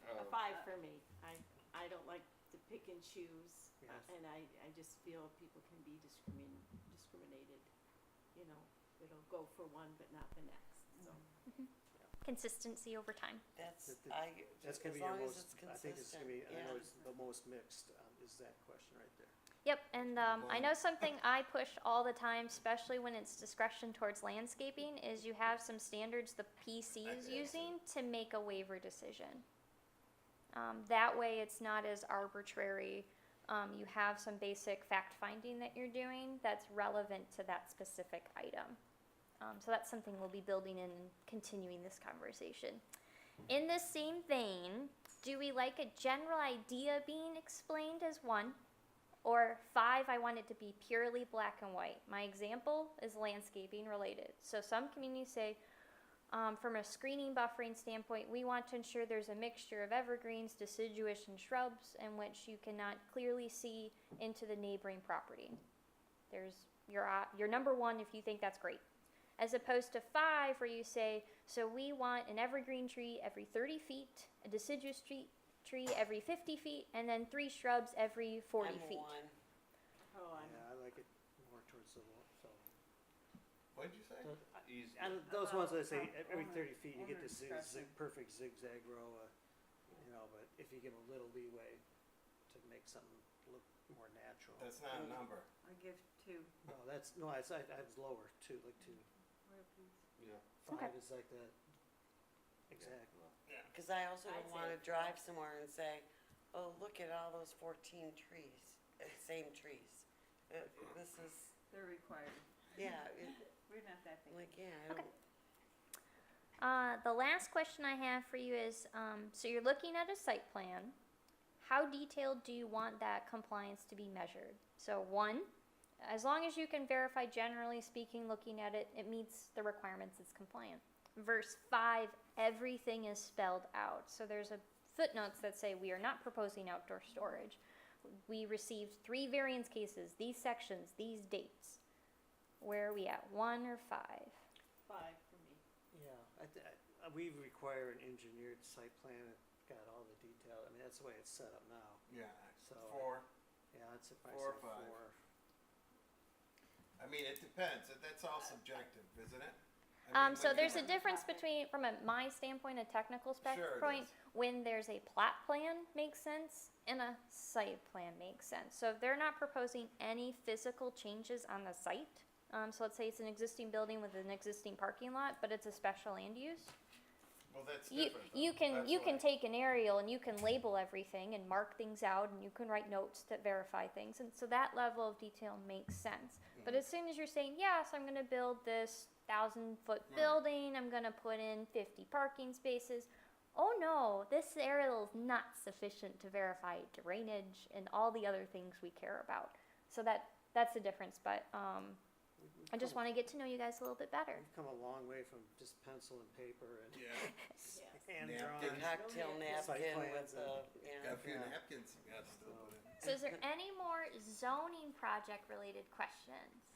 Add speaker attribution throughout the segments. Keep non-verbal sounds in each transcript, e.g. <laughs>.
Speaker 1: Oh.
Speaker 2: Um,
Speaker 3: don't like to pick and choose. uh,
Speaker 1: Yes.
Speaker 3: And I, I just feel people can be discrimin, discriminated, you know, it'll go for one but not the next, so.
Speaker 4: Consistency over time.
Speaker 5: That's,
Speaker 1: That- that-
Speaker 5: I,
Speaker 1: That's gonna
Speaker 5: as
Speaker 1: be your
Speaker 5: long as
Speaker 1: most,
Speaker 5: it's
Speaker 1: I think it's
Speaker 5: consistent,
Speaker 1: gonna be, I
Speaker 5: yeah.
Speaker 1: know it's the most mixed, um, is that question right there.
Speaker 4: Yep, and um, I
Speaker 2: Well-
Speaker 4: know something I push all the time, especially when it's discretion towards landscaping, is you have some standards the PC is
Speaker 2: I- I-
Speaker 4: using to make a waiver decision. Um, that way, it's not as arbitrary. Um, you have some basic fact finding that you're doing that's relevant to that specific item. Um, so that's something we'll be building in and continuing this conversation. In the same vein, do we like a general idea being explained as one? Or five, I want it to be purely black and white. My example is landscaping related. So some communities say, um, from a screening buffering standpoint, we want to ensure there's a mixture of evergreens, deciduous, and shrubs in which you cannot clearly see into the neighboring property. There's your, op- your number one if you think that's great. As opposed to five, where you say, so we want an evergreen tree every 30 feet, a deciduous tree, tree every 50 feet, and then three shrubs every 40
Speaker 5: I'm
Speaker 4: feet.
Speaker 5: one.
Speaker 6: Mm-hmm.
Speaker 3: Oh, I'm,
Speaker 1: Yeah, I like it more towards the, lo- so.
Speaker 2: What'd you
Speaker 1: Mm.
Speaker 2: say? Easy.
Speaker 1: And those ones that say ev- every thirty feet, you get
Speaker 5: owner
Speaker 1: this zig,
Speaker 5: discretion.
Speaker 1: zig- perfect zigzag row, uh, you know, but if you give a little leeway to make something look more natural.
Speaker 2: That's not a
Speaker 4: Mm.
Speaker 2: number.
Speaker 6: I give two.
Speaker 1: No, that's, no, I, I I was lower, two, like two,
Speaker 2: Yeah.
Speaker 1: five
Speaker 4: Okay.
Speaker 1: is like that, exactly.
Speaker 5: Cause I also
Speaker 3: I'd say-
Speaker 5: don't wanna drive somewhere and say, oh, look at all those fourteen trees, uh, same trees. Uh, this is,
Speaker 6: They're required.
Speaker 5: yeah, it,
Speaker 6: We're not that big.
Speaker 5: like, yeah, I
Speaker 4: Okay.
Speaker 5: don't,
Speaker 4: Uh, the last question I have for you is um, so you're looking at a site plan. How detailed do you want that compliance to be measured? So, one, as long as you can verify, generally speaking, looking at it, it meets the requirements, it's compliant. Verse five, everything is spelled out. So, there's a footnotes that say we are not proposing outdoor storage. We received three variance cases, these sections, these dates. Where are we at? One or five?
Speaker 3: five for me.
Speaker 1: Yeah, I, th- I, uh, we require an engineered site plan, it's got all the detail, I mean, that's the way it's set up now,
Speaker 2: Yeah.
Speaker 1: So, uh,
Speaker 2: Four.
Speaker 1: yeah, that's if I
Speaker 2: Four or
Speaker 1: said
Speaker 2: five.
Speaker 1: four.
Speaker 2: I mean, it depends. That- That's all subjective, isn't it? I mean,
Speaker 4: Uh, Um, so
Speaker 2: look
Speaker 4: there's a
Speaker 2: at-
Speaker 4: difference between, from a, my standpoint, a technical spec
Speaker 2: Sure it
Speaker 4: point,
Speaker 2: is.
Speaker 4: when there's a plat plan makes sense and a site plan makes sense. So if they're not proposing any physical changes on the site, um, so let's say it's an existing building with an existing parking lot, but it's a special land use.
Speaker 2: Well, that's
Speaker 4: You,
Speaker 2: different.
Speaker 4: you
Speaker 2: though.
Speaker 4: can,
Speaker 2: That's
Speaker 4: you can
Speaker 2: like-
Speaker 4: take an aerial and you can label everything and mark things out and you can write notes that verify things. And so that level of detail makes sense. But
Speaker 2: Mhm.
Speaker 4: as soon as you're saying, yes, I'm going to build this thousand foot
Speaker 2: Right.
Speaker 4: building, I'm going to put in 50 parking spaces. Oh no, this aerial is not sufficient to verify drainage and all the other things we care about. So that that's the difference. But um,
Speaker 1: We- we've
Speaker 4: I just
Speaker 1: come-
Speaker 4: want to get to know you guys a little bit better.
Speaker 1: We've come a long way from just pencil and paper and
Speaker 2: Yeah,
Speaker 1: <laughs>
Speaker 3: Yes.
Speaker 1: hand
Speaker 5: the
Speaker 2: Napkin.
Speaker 1: drawing.
Speaker 5: cocktail
Speaker 3: yeah.
Speaker 1: Site
Speaker 5: napkin
Speaker 1: plans
Speaker 5: with the, yeah.
Speaker 2: got a few
Speaker 1: Yeah. uh,
Speaker 2: napkins you gotta still put in.
Speaker 4: So is there any more zoning project related questions?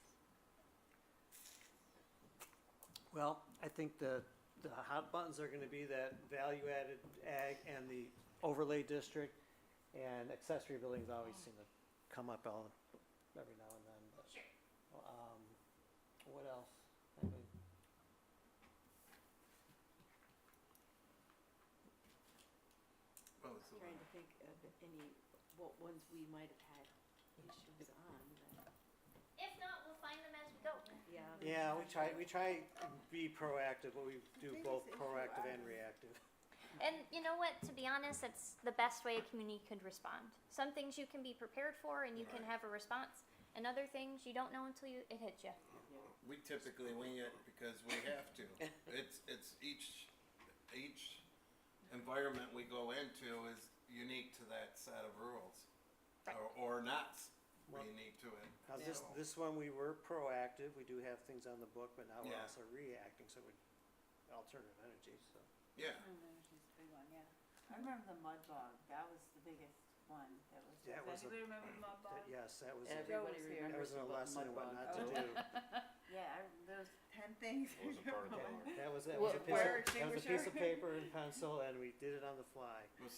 Speaker 1: Well, I think the, the hot buttons are gonna be that value-added ag and the overlay district, and accessory buildings always seem to come up all, every now and then, but. Um, what else? I mean,
Speaker 2: Well, it's a
Speaker 3: Trying
Speaker 2: lot.
Speaker 3: to think of any, what ones we might have had
Speaker 1: <laughs>
Speaker 3: issues on, but,
Speaker 4: If not, we'll find them as we go.
Speaker 3: yeah.
Speaker 1: Yeah, we try, we try to be proactive, but we do
Speaker 6: Biggest
Speaker 1: both
Speaker 6: issue
Speaker 1: proactive
Speaker 6: I-
Speaker 1: and reactive.
Speaker 4: And you know what? To be honest, that's the best way a community could respond. Some things you can be prepared for and you can
Speaker 2: Right.
Speaker 4: have a response, and other things you don't know until you, it hits you.
Speaker 2: We typically wing it because we have to.
Speaker 1: <laughs>
Speaker 2: It's, it's each, each environment we go into is unique to that set of rules. Or, or not s-
Speaker 1: Well-
Speaker 2: unique to it.
Speaker 1: Now, this,
Speaker 2: So-
Speaker 1: this one, we were proactive, we do have things on the book, but now we're
Speaker 2: Yeah.
Speaker 1: also reacting, so we, alternative energy, so.
Speaker 2: Yeah,
Speaker 6: Oh, there's this big one, yeah. I remember the mud bog, that was the biggest one, that was,
Speaker 1: That
Speaker 6: does
Speaker 1: was a-
Speaker 6: anybody remember the mud bog?
Speaker 1: That- Yes, that was, a-
Speaker 5: Everybody
Speaker 6: Joe was here.
Speaker 1: that
Speaker 5: remembers
Speaker 1: was a
Speaker 5: about
Speaker 1: lesson in
Speaker 5: mud
Speaker 1: what
Speaker 5: bog.
Speaker 1: not to do.
Speaker 6: Yeah, I, those ten things. <laughs> I
Speaker 7: Wasn't part of the
Speaker 6: remember.
Speaker 7: homework.
Speaker 1: That was, that was
Speaker 6: Wha-
Speaker 1: a piece
Speaker 6: fire
Speaker 1: of, that was a piece of
Speaker 6: extinguisher.
Speaker 1: paper and pencil, and we did it on the fly.
Speaker 2: was